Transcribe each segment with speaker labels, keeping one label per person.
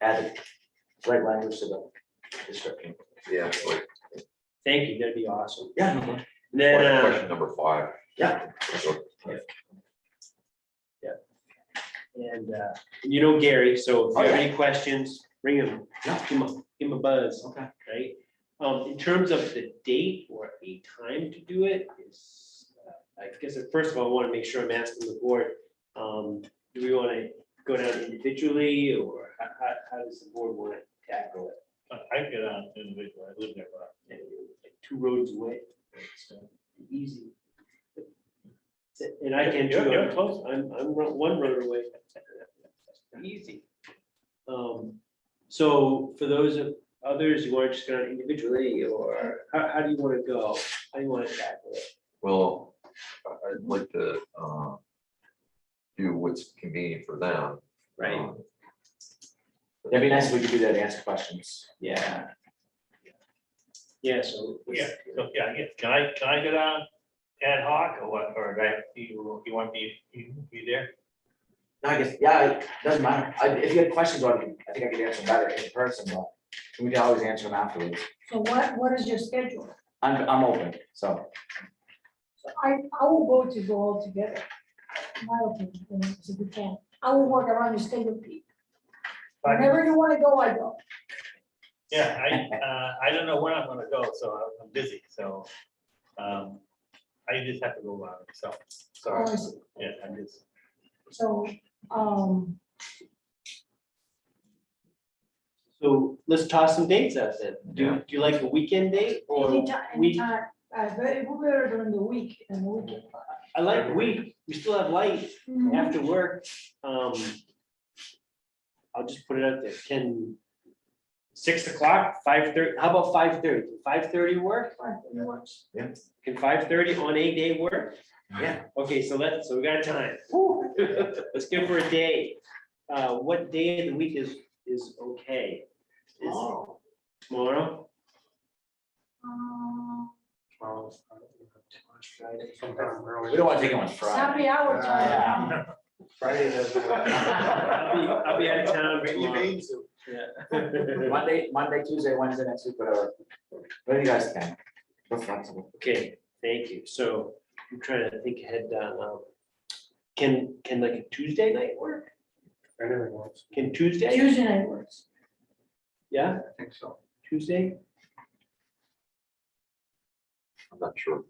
Speaker 1: add the right language to the description.
Speaker 2: Yeah.
Speaker 3: Thank you, that'd be awesome.
Speaker 1: Yeah, no more.
Speaker 3: And Then, uh,
Speaker 2: Question number five.
Speaker 1: Yeah.
Speaker 2: So,
Speaker 3: and, uh, you know Gary, so if you have any questions, bring him,
Speaker 1: Yeah.
Speaker 3: give him, a- give him a buzz,
Speaker 1: okay.
Speaker 3: right? Um, in terms of the date or a time to do it is, uh, I guess, uh, first of all, I want to make sure I'm asking the board, um, do we want to go down individually or how, how, how does the board want to tackle it?
Speaker 4: I can get on individual, I live there, but
Speaker 3: And you're like Two roads away,
Speaker 4: it's, uh,
Speaker 3: easy. And I can.
Speaker 4: You're-
Speaker 3: too.
Speaker 4: you're close.
Speaker 3: I'm, I'm ro- one road away. Easy. Um, so for those of others, you want to just go individually or how, how do you want to go? How do you want to tackle it?
Speaker 2: Well, I- I'd like to uh, do what's convenient for them. Um,
Speaker 1: That'd be nice if we could do that, ask questions.
Speaker 3: Yeah. Yeah, so.
Speaker 4: Yeah, so, yeah, I guess, can I, can I get on ad hoc or what, or do I- you, you want me, you be there?
Speaker 1: No, I guess, yeah, it doesn't matter. I- If you had questions, I could- I think I could answer them better in person, but we can always answer them afterwards.
Speaker 5: So what, what is your schedule?
Speaker 1: I'm, I'm open, so.
Speaker 5: So I, I will go to go all together. in My opinion, you know, if you can, I will work around your schedule. Pete.
Speaker 4: I can-
Speaker 5: Whenever you wanna go, I go.
Speaker 4: Yeah, I, uh, I don't know where I'm gonna go, so I'm- I'm busy, so, um, I just have to go by myself, so,
Speaker 5: Honestly.
Speaker 4: yeah, I'm just.
Speaker 5: So, um,
Speaker 3: So let's toss some dates out then. Do,
Speaker 2: Yeah.
Speaker 3: do you like a weekend date or
Speaker 5: anytime,
Speaker 3: week?
Speaker 5: anytime, uh, very, we're during the week and the weekend.
Speaker 3: I like week. We still have light.
Speaker 5: Mm,
Speaker 3: after work, um. I'll just put it out there, can. Six o'clock, five thirty, how about five thirty? Five thirty work?
Speaker 5: fine, it works.
Speaker 3: Can five thirty on a day work?
Speaker 1: Yeah.
Speaker 3: Okay, so let's, so we got time. Let's go for a day. Uh, what day of the week is, is okay? Is tomorrow?
Speaker 5: Um,
Speaker 1: We don't want to take them on Friday.
Speaker 5: Happy hour time.
Speaker 1: Yeah.
Speaker 6: Friday doesn't work.
Speaker 3: I'll be, I'll be out of town
Speaker 2: uh,
Speaker 3: tomorrow. Yeah.
Speaker 1: Monday, Monday, Tuesday, Wednesday, next week, whatever. Whatever you guys can. We're flexible.
Speaker 3: Okay, thank you. So I'm trying to think ahead. um, Can, can like a Tuesday night work? Can Tuesday?
Speaker 5: Tuesday night works.
Speaker 3: Yeah,
Speaker 2: I think so.
Speaker 3: Tuesday?
Speaker 2: I'm not sure,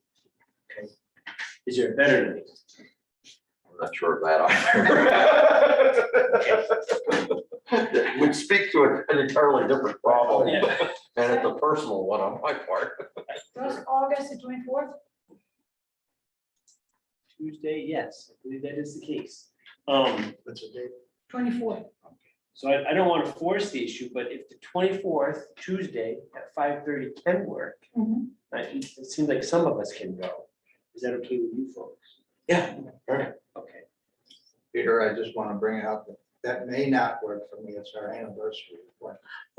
Speaker 3: Is there a better night?
Speaker 2: I'm not sure of that. either. Which speaks to an entirely different problem,
Speaker 3: Yeah.
Speaker 2: and it's a personal one on my part.
Speaker 5: That's August the twenty-fourth.
Speaker 3: Tuesday, yes, I believe that is the case. Um,
Speaker 5: Twenty-fourth.
Speaker 3: So I, I don't want to force the issue, but if the twenty-fourth, Tuesday at five thirty can work, I- it seems like some of us can go. Is that okay with you folks?
Speaker 1: Yeah, perfect.
Speaker 3: Okay.
Speaker 6: Peter, I just want to bring out that that may not work for me. It's our anniversary.
Speaker 5: Oh,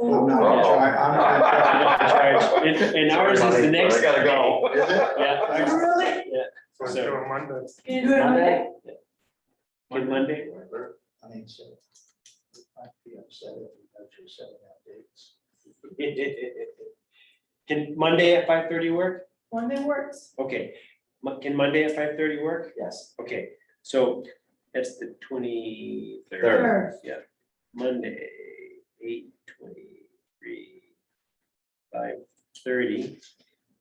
Speaker 6: I'm not gonna try, I'm not gonna try.
Speaker 3: And and ours is the
Speaker 2: Sorry, buddy, but
Speaker 3: next.
Speaker 2: I gotta go.
Speaker 6: Is it?
Speaker 3: day. Yeah.
Speaker 5: Really?
Speaker 3: So-
Speaker 5: Can you do it on
Speaker 1: Monday?
Speaker 5: Monday?
Speaker 3: Can Monday work?
Speaker 6: I mean, so. I'd be upset if we actually set out dates.
Speaker 3: Can Monday at five thirty work?
Speaker 5: Monday works.
Speaker 3: Okay, Mo- can Monday at five thirty work?
Speaker 1: Yes.
Speaker 3: Okay, so that's the twenty-third,
Speaker 1: Third.
Speaker 5: Sure.
Speaker 3: Monday, eight twenty-three, five thirty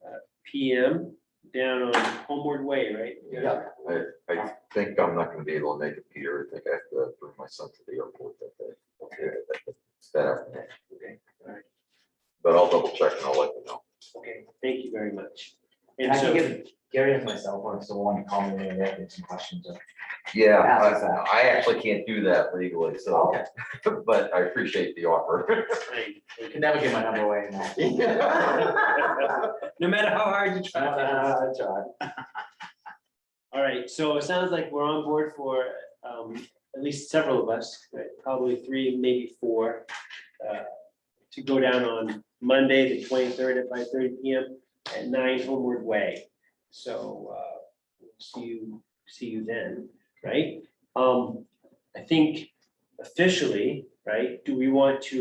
Speaker 3: uh, P M, down on Homeward Way, right?
Speaker 1: Yeah.
Speaker 2: I, I think I'm not gonna be able to make it, Peter. I think I have to bring my son to the airport that day. Okay. That afternoon.
Speaker 3: Okay, all right.
Speaker 2: But I'll double check and I'll let you know.
Speaker 3: Okay, thank you very much.
Speaker 1: And
Speaker 3: And
Speaker 1: I can
Speaker 3: so,
Speaker 1: give Gary and myself one, so one, call me when they have some questions. or-
Speaker 2: Yeah,
Speaker 1: Ask us that.
Speaker 2: I, I actually can't do that legally, so,
Speaker 1: Okay.
Speaker 2: but I appreciate the offer.
Speaker 3: Right.
Speaker 1: You can never give my number away now.
Speaker 3: no matter how hard you try.
Speaker 1: Uh, John.
Speaker 3: All right, so it sounds like we're on board for um at least several of us, right, probably three, maybe four. uh, To go down on Monday, the twenty-third at five thirty P M at nine Homeward Way. So uh, see you, see you then, right? Um, I think officially, right, do we want to